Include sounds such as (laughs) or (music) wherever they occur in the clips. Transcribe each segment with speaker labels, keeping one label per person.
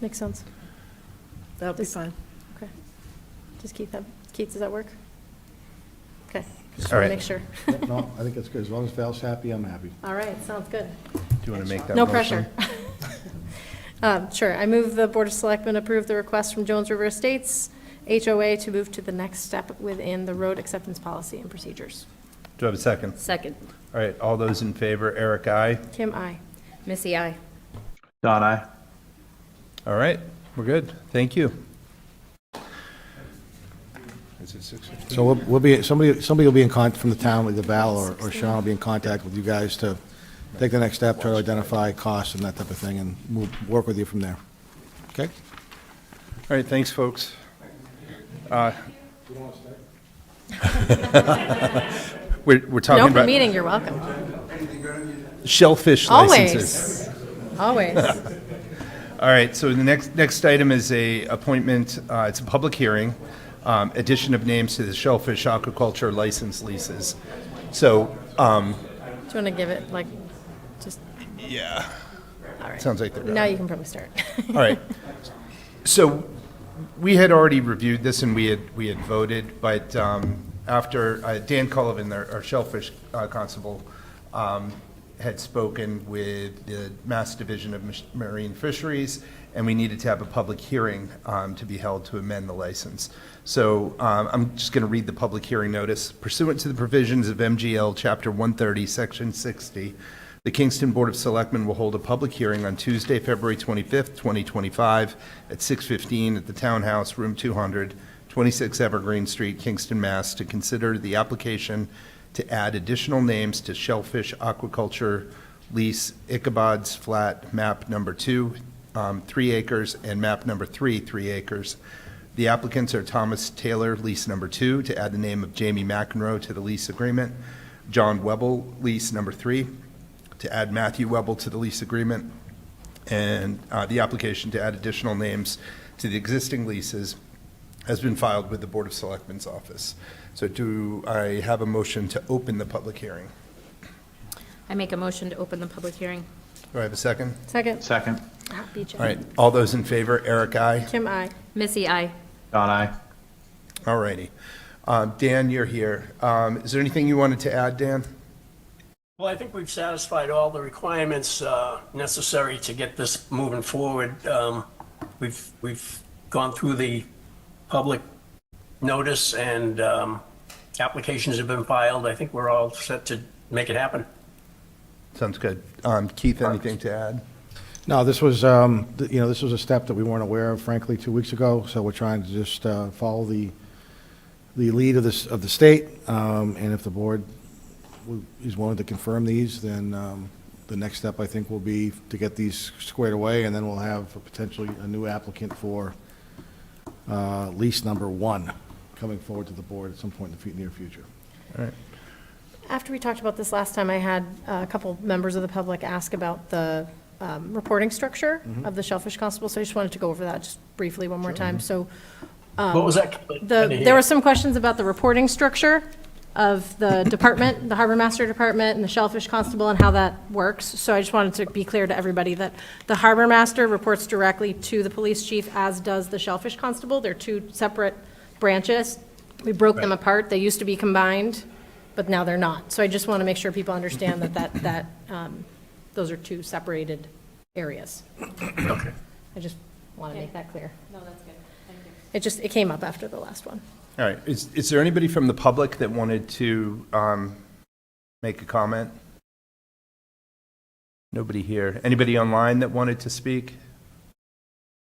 Speaker 1: Makes sense.
Speaker 2: That would be
Speaker 1: This-
Speaker 2: fine.
Speaker 1: Okay. Does Keith have, Keith, does that work? Okay. Just
Speaker 3: All
Speaker 1: want to
Speaker 3: right.
Speaker 1: make sure.
Speaker 4: No, I think it's good. As long as Val's happy, I'm happy.
Speaker 1: (laughs) All right, sounds good.
Speaker 3: Do you want to make that motion?
Speaker 1: No pressure. (laughs) Um, Sure. I move the Board of Selectmen approve the request from Jones River Estates HOA to move to the next step within the road acceptance policy and procedures.
Speaker 3: Do I have a second?
Speaker 5: Second.
Speaker 3: All right, all those in favor, Eric, aye.
Speaker 1: Kim, I.
Speaker 5: Missy, I.
Speaker 3: Don, aye. All right, we're good. Thank you. Is it six?
Speaker 4: So we'll- we'll be, somebody, somebody will be in contact from the town with the Val or or Sean will be in contact with you guys to take the next step, try to identify costs and that type of thing, and we'll work with you from there. Okay?
Speaker 3: All right, thanks, folks. Uh, (laughs) We're, we're
Speaker 1: No,
Speaker 3: talking
Speaker 1: for
Speaker 3: about
Speaker 1: meeting, you're welcome.
Speaker 3: shellfish licenses.
Speaker 1: Always. Always.
Speaker 3: All right, so the next, next item is a appointment, uh, it's a public hearing, um, addition of names to the shellfish aquaculture license leases. So, um,
Speaker 1: Do you want to give it, like, just,
Speaker 3: yeah,
Speaker 1: all right.
Speaker 3: sounds like they're done.
Speaker 1: Now you can probably start. (laughs)
Speaker 3: All right. So we had already reviewed this and we had, we had voted, but um, after uh, Dan Cullivan, our our Shellfish uh, Constable, um, had spoken with the Mass Division of Mis- Marine Fisheries, and we needed to have a public hearing um, to be held to amend the license. So um, I'm just going to read the public hearing notice. Pursuant to the provisions of MGL Chapter 130, Section 60, the Kingston Board of Selectmen will hold a public hearing on Tuesday, February 25th, 2025, at 6:15 at the Townhouse, Room 200, 26 Evergreen Street, Kingston, Mass., to consider the application to add additional names to Shellfish Aquaculture Lease Ichabod's Flat, map number two, um, three acres, and map number three, three acres. The applicants are Thomas Taylor, lease number two, to add the name of Jamie McEnroe to the lease agreement, John Webble, lease number three, to add Matthew Webble to the lease agreement, and uh, the application to add additional names to the existing leases has been filed with the Board of Selectmen's office. So do I have a motion to open the public hearing?
Speaker 5: I make a motion to open the public hearing.
Speaker 3: Do I have a second?
Speaker 1: Second.
Speaker 6: Second.
Speaker 1: Ah, beat you.
Speaker 3: All right, all those in favor, Eric, aye.
Speaker 1: Kim, I.
Speaker 5: Missy, I.
Speaker 6: Don, aye.
Speaker 3: All righty. Um, Dan, you're here. Um, Is there anything you wanted to add, Dan?
Speaker 7: Well, I think we've satisfied all the requirements uh, necessary to get this moving forward. Um, We've, we've gone through the public notice and um, applications have been filed. I think we're all set to make it happen.
Speaker 3: Sounds good. Um, Keith, anything to add?
Speaker 4: No, this was, um, th- you know, this was a step that we weren't aware of, frankly, two weeks ago, so we're trying to just uh, follow the, the lead of this, of the state, um, and if the board w- is willing to confirm these, then um, the next step, I think, will be to get these squared away, and then we'll have potentially a new applicant for uh, lease number one coming forward to the board at some point in the fu- near future.
Speaker 1: After we talked about this last time, I had uh, a couple members of the public ask about the um, reporting structure of the Shellfish Constable, so I just wanted to go over that just briefly one more time. So
Speaker 7: What was that? I didn't
Speaker 1: Um, the,
Speaker 7: hear.
Speaker 1: there were some questions about the reporting structure of
Speaker 7: (coughs)
Speaker 1: the department, the Harbor Master Department and the Shellfish Constable and how that works. So I just wanted to be clear to everybody that the Harbor Master reports directly to the police chief, as does the Shellfish Constable. They're two separate branches. We broke them
Speaker 3: Right.
Speaker 1: apart. They used to be combined, but now they're not. So I just want to make sure people understand that,
Speaker 7: (coughs)
Speaker 1: that, that, um, those are two separated areas.
Speaker 7: Okay.
Speaker 1: I just want to make that clear.
Speaker 5: No, that's good. Thank you.
Speaker 1: It just, it came up after the last one.
Speaker 3: All right, is, is there anybody from the public that wanted to um, make a comment? Nobody here. Anybody online that wanted to speak?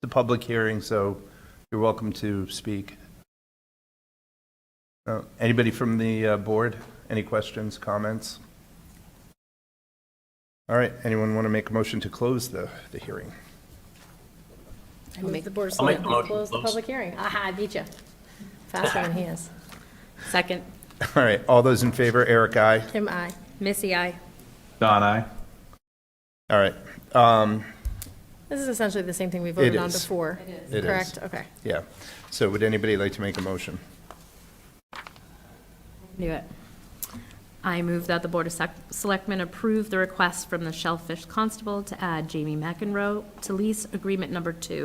Speaker 3: The public hearing, so you're welcome to speak. No? Anybody from the uh, board? Any questions, comments? All right, anyone want to make a motion to close the, the hearing?
Speaker 1: I move the Board of
Speaker 7: I'll make the
Speaker 1: Selectmen
Speaker 7: motion to
Speaker 1: close the
Speaker 7: close.
Speaker 1: public hearing. Aha, I beat you. Faster than he is.
Speaker 5: Second.
Speaker 3: All right, all those in favor, Eric, aye.
Speaker 1: Kim, I.
Speaker 5: Missy, I.
Speaker 6: Don, aye.
Speaker 3: All right. Um,
Speaker 1: This is essentially the same thing we voted on
Speaker 3: is.
Speaker 1: before.
Speaker 3: It is.
Speaker 1: Correct, okay.
Speaker 3: Yeah. So would anybody like to make a motion?
Speaker 5: Do it. I move that the Board of Sec- Selectmen approve the request from the Shellfish Constable to add Jamie McEnroe to lease agreement number two